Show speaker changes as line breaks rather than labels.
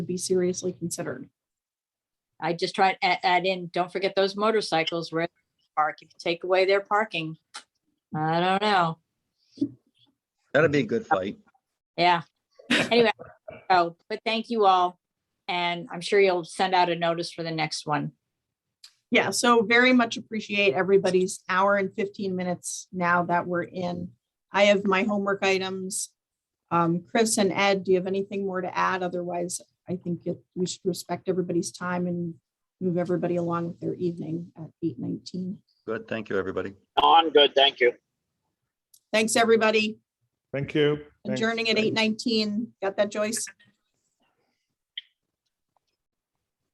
should be seriously considered.
I just tried to a- add in, don't forget those motorcycles where they park, if you take away their parking. I don't know,
That'd be a good fight.
yeah. Anyway, oh, but thank you all. And I'm sure you'll send out a notice for the next one.
Yeah, so very much appreciate everybody's hour and fifteen minutes now that we're in. I have my homework items. Um, Chris and Ed, do you have anything more to add? Otherwise, I think it- we should respect everybody's time and move everybody along with their evening at eight nineteen.
Good. Thank you, everybody.
No, I'm good, thank you.
Thanks, everybody.
Thank you. Thanks.
Adjourning at eight nineteen. Got that, Joyce?